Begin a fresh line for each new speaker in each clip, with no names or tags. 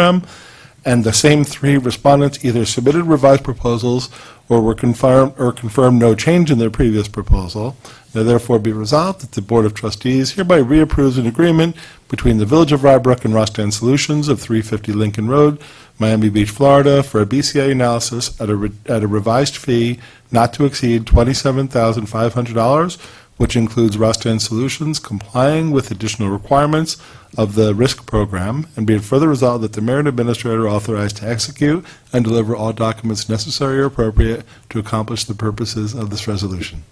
program, and the same three respondents either submitted revised proposals or were confirmed, or confirmed no change in their previous proposal. Now therefore be resolved that the Board of Trustees hereby reapproves an agreement between the Village of Rybrook and Rostan Solutions of 350 Lincoln Road, Miami Beach, Florida, for a BCA analysis at a, re- at a revised fee not to exceed $27,500, which includes Rostan Solutions complying with additional requirements of the risk program, and be it further resolved that the mayor and administrator are authorized to execute and deliver all documents necessary or appropriate to accomplish the purposes of this resolution.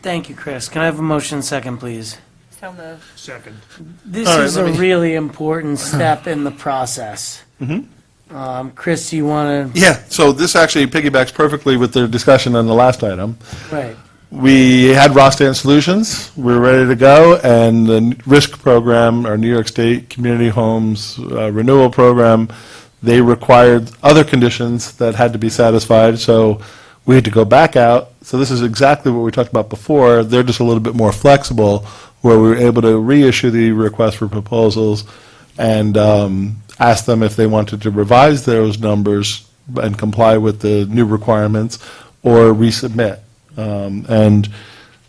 Thank you, Chris. Can I have a motion second, please?
So moved.
Second.
This
All right,
is a
let me-
really important step in the process.
Mm-hmm.
Um, Chris, do you want
Yeah, so this actually piggybacks perfectly with the discussion on the last item.
to, right,
We had Rostan Solutions, we were ready to go, and the risk program, our New York State Community Homes uh, Renewal Program, they required other conditions that had to be satisfied, so we had to go back out. So this is exactly what we talked about before, they're just a little bit more flexible, where we were able to reissue the request for proposals and um, ask them if they wanted to revise those numbers and comply with the new requirements, or resubmit. Um, And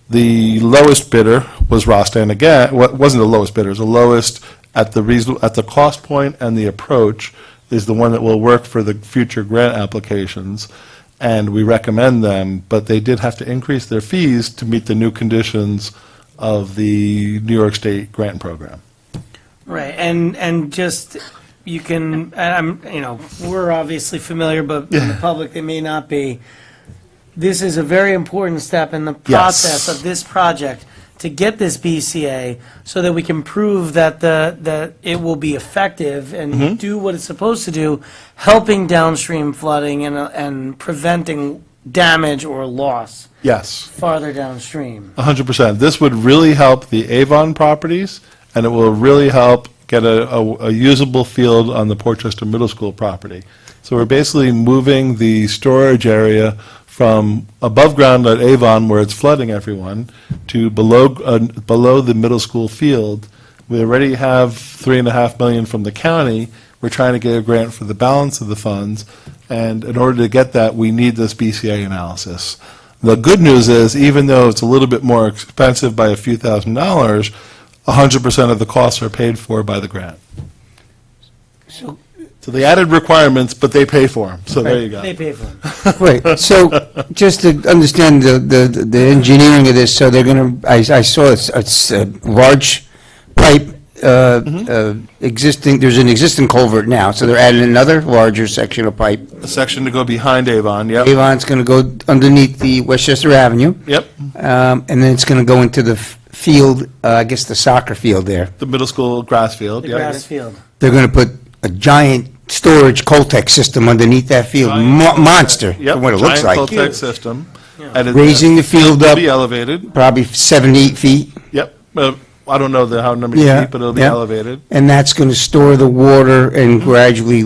the lowest bidder was Rostan again, wa- wasn't the lowest bidder, it was the lowest at the reasonable, at the cost point and the approach is the one that will work for the future grant applications. And we recommend them, but they did have to increase their fees to meet the new conditions of the New York State grant program.
right, and, and just, you can, and I'm, you know, we're obviously familiar, but in the public, they may not be. This is a very important step in the process of this project to get this BCA so that we can prove that the, that it will be effective
Mm-hmm.
and do what it's supposed to do, helping downstream flooding and, uh, and preventing damage or loss
Yes.
farther downstream.
A hundred percent. This would really help the Avon properties, and it will really help get a, a, a usable field on the Portchester Middle School property. So we're basically moving the storage area from above ground at Avon, where it's flooding everyone, to below, uh, below the middle school field. We already have three and a half million from the county. We're trying to get a grant for the balance of the funds, and in order to get that, we need this BCA analysis. The good news is, even though it's a little bit more expensive by a few thousand dollars, 100% of the costs are paid for by the grant. So they added requirements, but they pay for them, so there you go.
They pay for it.
Right, so, just to understand the, the, the engineering of this, so they're gonna, I, I saw it's, it's a large pipe, uh,
Mm-hmm.
uh, existing, there's an existing culvert now, so they're adding another larger section of pipe.
A section to go behind Avon, yep,
Avon's gonna go underneath the Westchester Avenue,
yep,
um, and then it's gonna go into the f- field, uh, I guess the soccer field there.
the middle school grass field,
The
yep.
grass field.
They're gonna put a giant storage Coltech system underneath that field, Mo- monster,
Yep,
from what it looks
Giant
like.
Coltech system. And it-
Raising the field
It'll
up
be elevated,
probably seven, eight feet.
yep. Uh, I don't know the, how many
Yeah,
feet, but it'll be
yeah.
elevated,
And that's going to store the water and gradually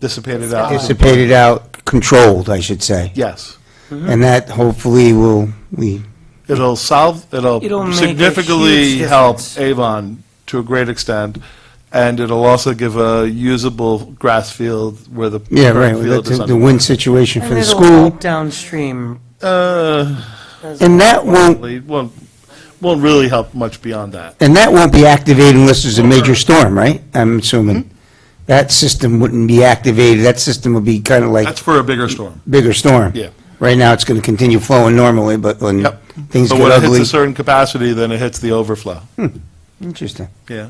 dissipated out,
dissipate it out, controlled, I should say.
yes.
And that hopefully will, we,
It'll solve,
It'll
it'll
make a
significantly
huge
help
difference.
Avon to a great extent, and it'll also give a usable grass field where the.
yeah,
current
right,
field
that's
is
the
under-
win situation for
And
the
it'll
school.
help downstream.
Uh,
And that won't,
probably won't, won't really help much beyond that.
and that won't be activated unless there's a major storm, right? I'm
Hmm?
assuming. That system wouldn't be activated, that system would be kind of like
That's for a bigger storm.
bigger storm.
Yeah.
Right now, it's going to continue flowing normally, but when
Yep.
things
But
get
when it hits
ugly.
a certain capacity, then it hits the overflow.
Interesting.
Yeah.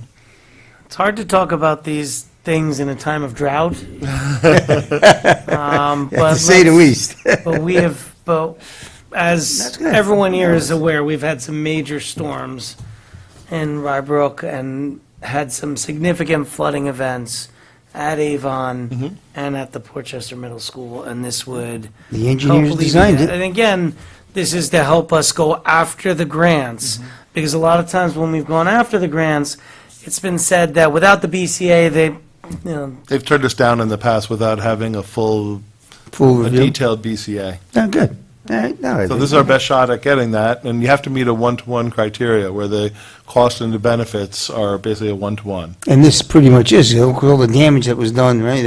It's hard to talk about these things in a time of drought. Um,
To
but
say the
let's-
least.
But we have, but as
That's good.
everyone here is aware, we've had some major storms in Rybrook and had some significant flooding events at
Mm-hmm.
Avon and at the Portchester Middle School, and this would.
The engineers
help alleviate
designed
that.
it.
And again, this is to help us go after the grants,
Mm-hmm.
because a lot of times when we've gone after the grants, it's been said that without the BCA, they, you know,
They've turned us down in the past without having a full,
Full
a
review.
detailed BCA.
Oh, good. All right, no.
So this is our best shot at getting that, and you have to meet a one-to-one criteria where the cost and the benefits are basically a one-to-one.
And this pretty much is, you know, 'cause all the damage that was done, right?